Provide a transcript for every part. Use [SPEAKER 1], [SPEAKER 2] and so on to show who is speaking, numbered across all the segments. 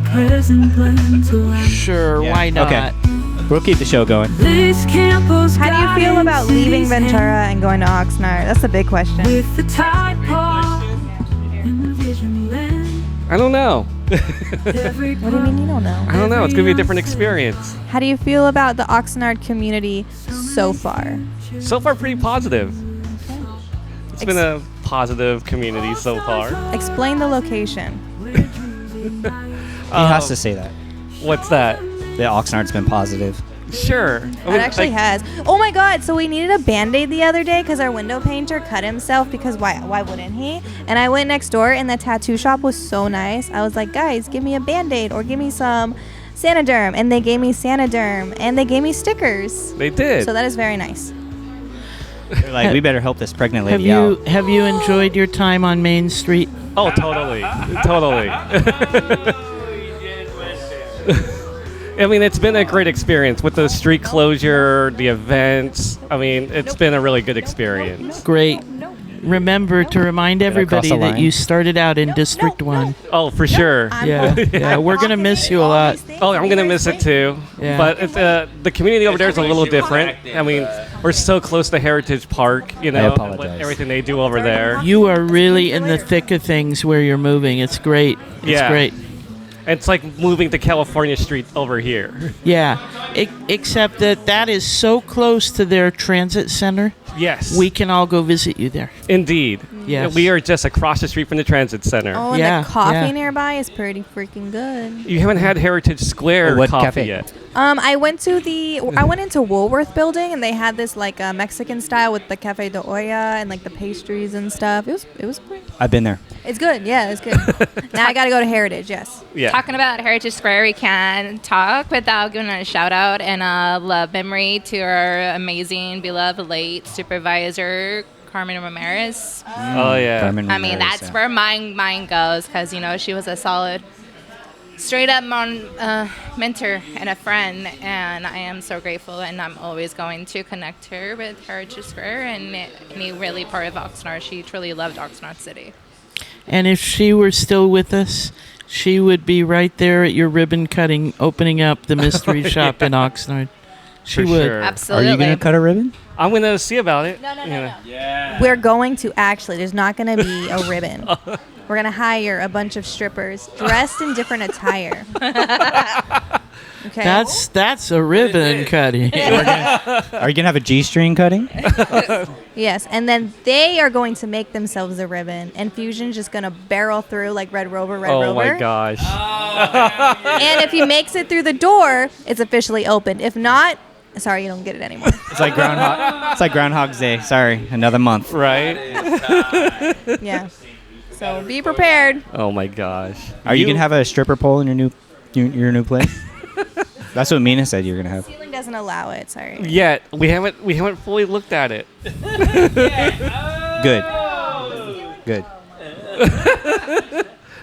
[SPEAKER 1] present plan to end.
[SPEAKER 2] Sure,
[SPEAKER 3] Yeah.
[SPEAKER 2] why not?
[SPEAKER 4] Okay. We'll keep the show going.
[SPEAKER 1] This campus
[SPEAKER 5] How do you feel about
[SPEAKER 1] guidance in
[SPEAKER 5] leaving
[SPEAKER 1] these hands
[SPEAKER 5] Ventura and going to Oxnard? That's a big question.
[SPEAKER 1] With the tide pod and the vision lens.
[SPEAKER 6] I don't know.
[SPEAKER 1] Every
[SPEAKER 5] What do you mean you don't know?
[SPEAKER 6] I don't know. It's gonna be a different experience.
[SPEAKER 5] How do you feel about the Oxnard community so far?
[SPEAKER 6] So far, pretty positive. It's been a positive community so far.
[SPEAKER 5] Explain the location.
[SPEAKER 4] he has
[SPEAKER 6] Um,
[SPEAKER 4] to say that.
[SPEAKER 6] What's that?
[SPEAKER 4] The Oxnard's been positive.
[SPEAKER 6] Sure. I
[SPEAKER 5] It
[SPEAKER 6] mean,
[SPEAKER 5] actually
[SPEAKER 6] like-
[SPEAKER 5] has. Oh my God! So we needed a Band-Aid the other day because our window painter cut himself. Because why? Why wouldn't he? And I went next door, and the tattoo shop was so nice. I was like, guys, give me a Band-Aid or give me some Sanoderm, and they gave me Sanoderm, and they gave me stickers.
[SPEAKER 6] They did.
[SPEAKER 5] So that is very nice.
[SPEAKER 4] They're like, we better help this pregnant
[SPEAKER 2] Have
[SPEAKER 4] lady
[SPEAKER 2] you
[SPEAKER 4] out.
[SPEAKER 2] have you enjoyed your time on Main Street?
[SPEAKER 6] oh, totally. totally. I mean, it's been a great experience with the street closure, the events. I mean, it's been a really good experience.
[SPEAKER 2] Great. Remember to remind
[SPEAKER 4] I cross
[SPEAKER 2] everybody
[SPEAKER 4] the
[SPEAKER 2] that
[SPEAKER 4] line?
[SPEAKER 2] you started out in District One.
[SPEAKER 6] Oh, for sure.
[SPEAKER 5] I'm
[SPEAKER 2] Yeah,
[SPEAKER 5] walking-
[SPEAKER 2] yeah,
[SPEAKER 5] I'm
[SPEAKER 2] we're gonna
[SPEAKER 5] walking
[SPEAKER 2] miss
[SPEAKER 5] in
[SPEAKER 2] you a
[SPEAKER 5] all
[SPEAKER 2] lot.
[SPEAKER 5] these things.
[SPEAKER 6] Oh, I'm gonna miss
[SPEAKER 5] Here's me.
[SPEAKER 6] it too.
[SPEAKER 2] Yeah.
[SPEAKER 6] But it's, uh, the community over there is a little different. I mean, we're so close to Heritage Park, you know, and what-
[SPEAKER 4] apologize.
[SPEAKER 6] everything they do over there.
[SPEAKER 2] You are really in the thick of things where you're moving. It's great. It's
[SPEAKER 6] Yeah.
[SPEAKER 2] great.
[SPEAKER 6] It's like moving to California Street over here.
[SPEAKER 2] Yeah. E- except that that is so close to their transit center.
[SPEAKER 6] Yes.
[SPEAKER 2] We can all go visit you there.
[SPEAKER 6] Indeed.
[SPEAKER 2] Yes.
[SPEAKER 6] We are just across the street from the transit center.
[SPEAKER 5] Oh, and
[SPEAKER 2] Yeah,
[SPEAKER 5] the coffee
[SPEAKER 2] yeah.
[SPEAKER 5] nearby is pretty freaking good.
[SPEAKER 6] You haven't had Heritage Square
[SPEAKER 4] Oh, what
[SPEAKER 6] coffee
[SPEAKER 4] cafe?
[SPEAKER 6] yet.
[SPEAKER 5] Um, I went to the
[SPEAKER 2] Mm.
[SPEAKER 5] I went into Woolworth building and they had this like uh, Mexican style with the cafe de olla and like the pastries and stuff. It was it was pretty.
[SPEAKER 4] I've been there.
[SPEAKER 5] It's good. Yeah, it's good. now I got to go to Heritage. Yes.
[SPEAKER 6] Yeah.
[SPEAKER 7] Talking about Heritage Square, we can talk without giving a shout out and a love memory to our amazing, beloved late supervisor, Carmen Ramirez.
[SPEAKER 6] oh yeah.
[SPEAKER 4] Carmen
[SPEAKER 7] I mean,
[SPEAKER 4] Ramirez,
[SPEAKER 7] that's
[SPEAKER 4] yeah.
[SPEAKER 7] where my mind goes because you know she was a solid, straight up mon, uh, mentor and a friend, and I am so grateful, and I'm always going to connect her with Heritage Square and any really part of Oxnard. She truly loved Oxnard City.
[SPEAKER 2] And if she were still with us, she would be right there at your ribbon cutting, opening up the mystery shop in Oxnard. She
[SPEAKER 6] For
[SPEAKER 2] would.
[SPEAKER 6] sure.
[SPEAKER 4] Are
[SPEAKER 7] Absolutely.
[SPEAKER 4] you going to cut a ribbon?
[SPEAKER 6] I'm gonna see about it.
[SPEAKER 7] No, no, no,
[SPEAKER 6] you know.
[SPEAKER 7] no.
[SPEAKER 5] We're going to actually. There's not going to be a ribbon. We're gonna hire a bunch of strippers dressed in different attire. okay.
[SPEAKER 2] That's that's a ribbon cutting.
[SPEAKER 4] Are you going to have a G string cutting?
[SPEAKER 5] Yes, and then they are going to make themselves a ribbon, and Fusion's just gonna barrel through like Red Rover, Red
[SPEAKER 6] Oh
[SPEAKER 5] Rover.
[SPEAKER 6] my gosh.
[SPEAKER 5] And if he makes it through the door, it's officially opened. If not, sorry, you don't get it anymore.
[SPEAKER 4] It's like Groundhog. It's like Groundhog's Day. Sorry, another month.
[SPEAKER 6] right?
[SPEAKER 5] Yeah. So be prepared.
[SPEAKER 6] Oh my gosh.
[SPEAKER 4] Are you, gonna have a stripper pole in your new your, your new place? That's what Mina said you're gonna have.
[SPEAKER 5] Ceiling doesn't allow it. Sorry.
[SPEAKER 6] Yet we haven't we haven't fully looked at it.
[SPEAKER 4] Good. Good.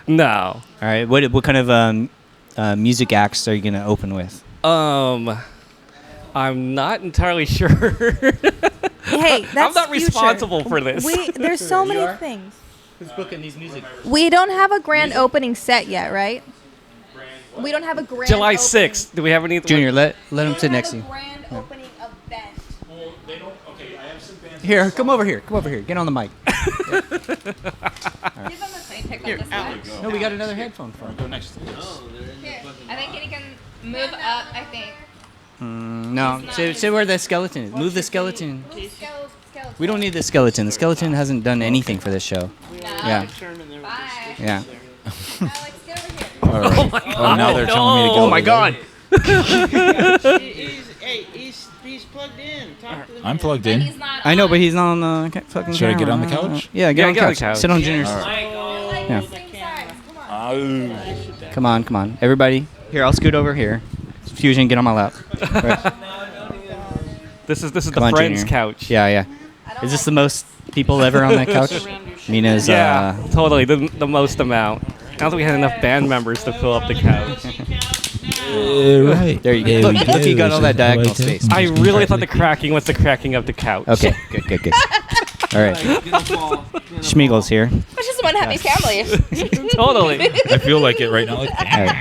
[SPEAKER 6] No.
[SPEAKER 4] All right. What what kind of um, uh, music acts are you gonna open with?
[SPEAKER 6] Um. I'm not entirely sure.
[SPEAKER 5] Hey, that's
[SPEAKER 6] I'm not
[SPEAKER 5] future.
[SPEAKER 6] responsible for this.
[SPEAKER 5] We there's so many things.
[SPEAKER 4] Who's booking these music?
[SPEAKER 5] We don't have a grand opening set yet, right? We don't have a grand.
[SPEAKER 6] July
[SPEAKER 5] opening.
[SPEAKER 6] 6th. Do we have any?
[SPEAKER 4] Junior, let let him
[SPEAKER 5] We
[SPEAKER 4] sit
[SPEAKER 5] don't
[SPEAKER 4] next
[SPEAKER 5] have a
[SPEAKER 4] to you.
[SPEAKER 5] grand opening event.
[SPEAKER 4] Here, come over here. Come over here. Get on the mic.
[SPEAKER 7] Give him a clean pick on this one.
[SPEAKER 4] No, we got another headphone for him. Go next.
[SPEAKER 7] Here. I think he can move up. I think.
[SPEAKER 4] Hmm, No, sit, sit where the skeleton is. Move the skeleton.
[SPEAKER 7] Move skele- skeleton.
[SPEAKER 4] We don't need the skeleton. The skeleton hasn't done anything for this show. Yeah,
[SPEAKER 7] Bye.
[SPEAKER 4] yeah.
[SPEAKER 7] Alex, get over here.
[SPEAKER 6] Oh my god.
[SPEAKER 8] Oh, now they're telling me to go.
[SPEAKER 6] Oh my
[SPEAKER 8] over
[SPEAKER 6] god.
[SPEAKER 2] he's, plugged in. Talk to
[SPEAKER 8] there. I'm plugged in.
[SPEAKER 7] He's not.
[SPEAKER 4] I know, but he's not on the ca- fucking.
[SPEAKER 8] Should I get on the
[SPEAKER 4] camera. Uh,
[SPEAKER 8] couch?
[SPEAKER 4] Yeah, get,
[SPEAKER 6] Yeah,
[SPEAKER 4] on,
[SPEAKER 6] get
[SPEAKER 4] the
[SPEAKER 6] on
[SPEAKER 4] couch.
[SPEAKER 6] the couch.
[SPEAKER 4] Sit on Junior's. Yeah. Come on, come on, everybody. Here, I'll scoot over here. Fusion, get on my lap. Right.
[SPEAKER 6] This is this is
[SPEAKER 4] Come
[SPEAKER 6] the
[SPEAKER 4] on,
[SPEAKER 6] friends
[SPEAKER 4] Junior.
[SPEAKER 6] couch.
[SPEAKER 4] Yeah, yeah. Is this the most people ever on that couch? Mina's.
[SPEAKER 6] Yeah,
[SPEAKER 4] Uh,
[SPEAKER 6] totally. The, the most amount. I don't think we had enough band members to fill up the couch.
[SPEAKER 8] right.
[SPEAKER 4] there you go. Look, look, you got all that diagonal space.
[SPEAKER 6] I really thought the cracking was the cracking of the couch.
[SPEAKER 4] Okay, good, good, good. All right. Schmiegel's here.
[SPEAKER 7] We're just one happy family.
[SPEAKER 6] totally.
[SPEAKER 8] I feel like it right now. Like,
[SPEAKER 4] All right.